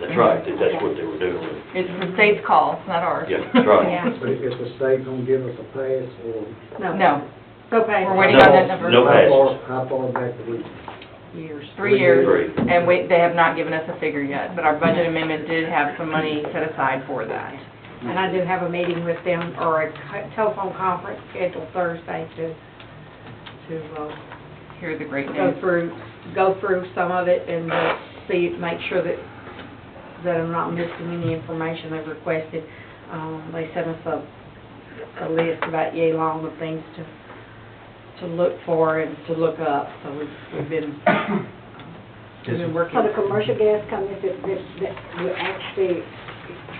That's right, that that's what they were doing. It's the state's call, it's not ours. Yeah, that's right. Yeah. But if the state gonna give us a pass or? No, Okay. We're waiting on that No, number. No How far, passes. how far back do we? Years. three years, Three. and we, they have not given us a figure yet, but our budget amendment did have some money set aside for that. And I do have a meeting with them, or a co- telephone conference scheduled Thursday to, to, uh, Here's the great go news. through, go through some of it and uh, see, make sure that, that I'm not missing any information they've requested. Um, they sent us a, a list about yay long of things to, to look for and to look up, so we've, we've been, we've been working. So the commercial gas companies that, that, that were actually,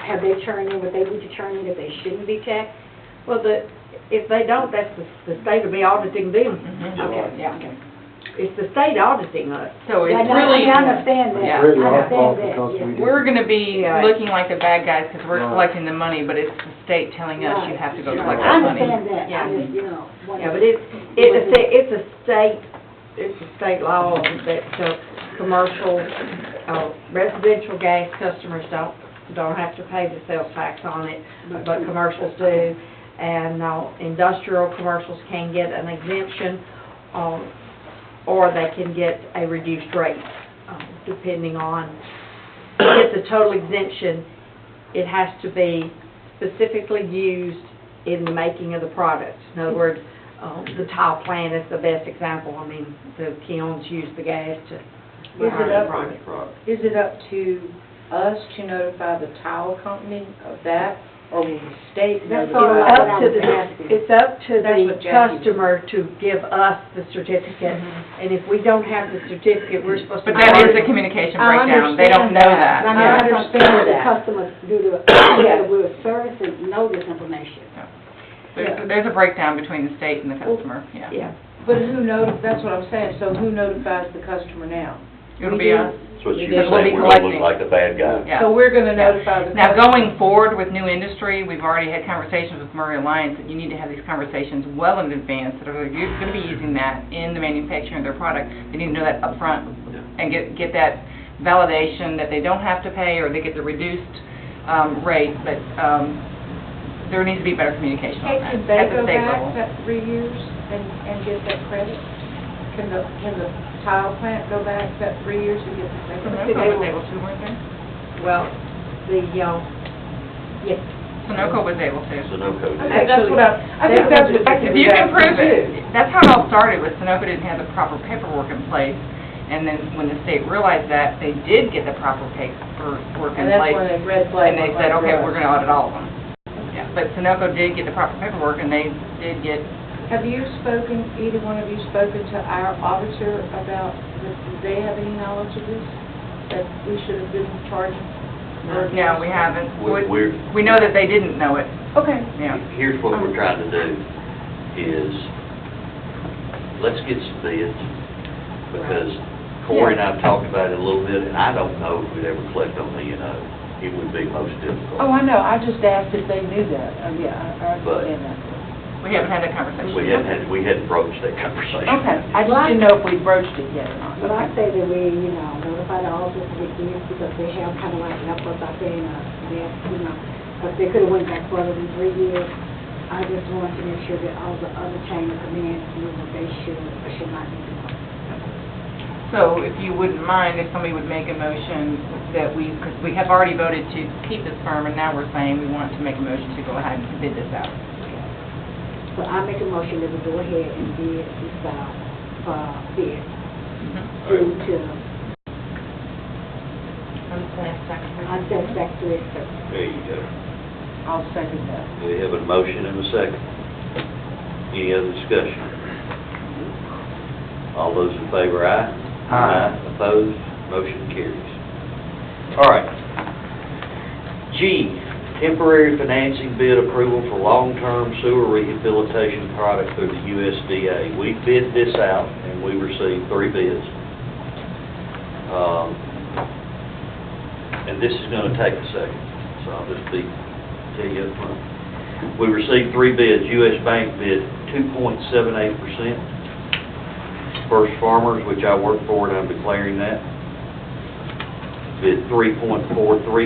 have they churned in, would they be churning that they shouldn't be taxed? Well, the, if they don't, that's the, the state will be auditing them. Mhm. Okay, Yeah. okay. It's the state auditing us. So Yeah, it's no, I really, I understand that, Yeah. I Really our fault understand that, because we yeah. didn't- we're gonna be Yeah. looking like the bad guys, because we're Right. collecting the money, but it's the state telling us you Right. have to go Right. collect I that money. understand that, I Yeah. just, you know. Yeah, but it's, it's a, sta- it's a state, it's a state law that, uh, commercial, uh, residential gas customers don't, don't have to pay the sales tax on it, but commercials do. And, uh, industrial commercials can get an exemption, um, or they can get a reduced rate, um, depending on, to get the total exemption, it has to be specifically used in the making of the product. In other words, um, the tile plant is the best example. I mean, the kilns use the gas to. Is it up? Right. Right. Is it up to us to notify the tile company of that, or will the state That's all notify? them? I Up to was the, asking. it's up to That's the what Jackie- customer to give us the certificate. And if we don't have the certificate, we're supposed to. But that is a communication I breakdown, they don't know understand that. that. I Yeah. I understand the that. customers do the, Yeah. we will service and know this information. There's, there's a breakdown between the state and the customer, yeah. Yeah. But who notifies, that's what I'm saying, so who notifies the customer now? It'll be We do. us, So you Because were we'll saying be we're gonna look collecting. like the bad guy. yeah. So we're gonna Yeah. notify the. Now, customer. going forward with new industry, we've already had conversations with Murray Alliance, that you need to have these conversations well in advance, that are, you're gonna be using that in the manufacturing of their product, they need to know that upfront, and get, get that validation that they don't have to pay, or they get the reduced, um, rate, but, um, there needs to be better communication on that, Can they at the go state back level. that three years and, and get that credit? Can the, can the tile plant go back that three years and get the Sunoco credit? was able to, weren't they? Well, the, uh, yes, Sunoco was able to. So no code. And that's what I, I think that's what they can If do you can that prove too. it, that's how it all started, was Sunoco didn't have the proper paperwork in place, and then when the state realized that, they did get the proper paperwork in And that's place, when the red and flag. they went said, like okay, that. we're gonna audit all of them. Yeah, but Sunoco did get the proper paperwork, and they did get, Have you spoken, either one of you spoken to our auditor about, this? do they have any knowledge of this? That we should have been charging? for this? no, we haven't. We- We- We're, We know that they didn't know it, Okay. yeah. here's what we're trying to do, is, let's get some bids, because Corey and I have talked about it a little bit, and I don't know if we'd ever collect on the, you know, it would be most Oh, difficult. I know, I just asked if they knew that, oh, yeah, I I But- understand that. We haven't had that conversation. We hadn't, had- we hadn't broached that conversation. Okay, I just didn't know if we broached it yet or not. Well, I say that we, you know, notify the office of the kids because they have kind of like helped us out there in a, you know, but they could have went back further than three years. I just want to make sure that all the other chain of command knew what they should or should not be doing. So if you wouldn't mind, if somebody would make a motion that we, because we have already voted to keep this firm, and now we're saying we want to make a motion to go ahead and bid this out. So I make a motion that we go ahead and bid this out, uh, bid due to unsatisfactory uh, service. There you go. I'll second that. We have a motion and a second. Any other discussion? All those in favor, aye? Aye. Opposed, motion carries. All right. G, temporary financing bid approval for long-term sewer rehabilitation product through the USDA. We bid this out, and we received three bids. Um, And this is going to take a second, so I'll just be tell you up front. We received three bids, US Bank bid 2.78%. First Farmers, which I work for, and I'm declaring that, at three point four three